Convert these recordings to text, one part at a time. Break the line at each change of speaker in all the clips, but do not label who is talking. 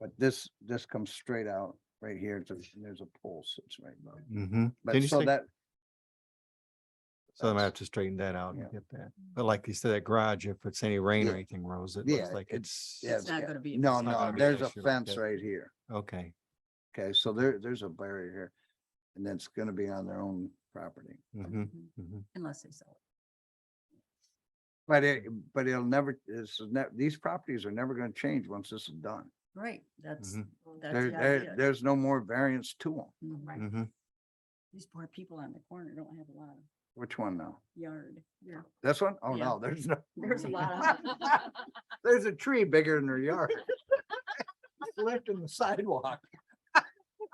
But this, this comes straight out right here. to- and There's a pole sits right above.
Mm-hmm.
But so that.
So I might have
that's-
to straighten that out and
yeah.
get that. But like you said, that garage, if it's any rain
Yeah.
or anything, Rose, it
Yeah,
looks like it's,
yeah,
It's not gonna be a
No,
big
no,
gonna be an
there's a
issue like
fence
that.
right here.
okay.
Okay, so there, there's a barrier here. And that's gonna be on their own property.
Mm-hmm.
Mhm. Unless they sell it.
But it, but it'll never, this is ne- these properties are never gonna change once this is done.
Right, that's,
Mhm.
that's
Mm-hmm. There,
the
there,
idea.
there's no more variance to them.
Mhm.
Mm-hmm.
These poor people on the corner don't have a lot of
Which one now?
yard. Yeah,
This one? Oh,
Yeah.
no, there's no.
There's a lot of.
There's a tree bigger than their yard. It's Left in the sidewalk.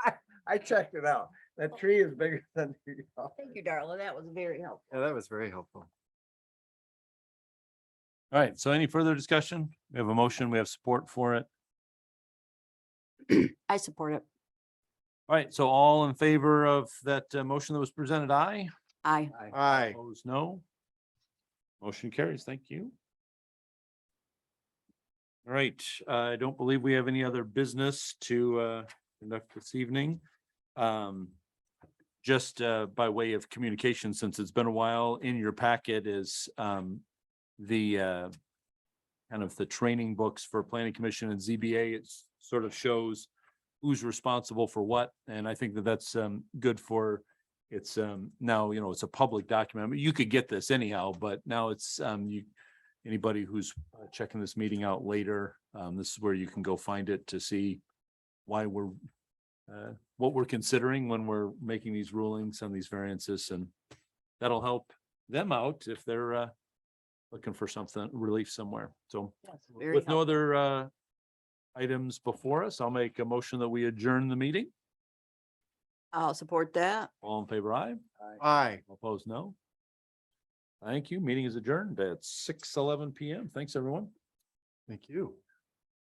I, I checked it out. That tree is bigger than their yard.
Thank you, Darla. That was very helpful.
Yeah, that was very helpful.
All right, so any further discussion? We have a motion, we have support for it.
I support it.
All right, so all in favor of that uh, motion that was presented, aye?
I.
Aye.
Opposed, no? Motion carries, thank you. All right, uh, I don't believe we have any other business to uh, conduct this evening. Um, Just uh, by way of communication, since it's been a while, in your packet is um, the uh, kind of the training books for planning commission and ZBA. It sort of shows who's responsible for what, and I think that that's um, good for it's um now, you know, it's a public document. I mean, You could get this anyhow, but now it's um you. Anybody who's uh, checking this meeting out later, um this is where you can go find it to see why we're. Uh, what we're considering when we're making these rulings on these variances and that'll help them out if they're uh. Looking for something relief somewhere. So with no other uh. Items before us, I'll make a motion that we adjourn the meeting.
I'll support that.
All in favor, aye?
Aye.
Opposed, no. Thank you. Meeting is adjourned at six eleven PM. Thanks, everyone.
Thank you.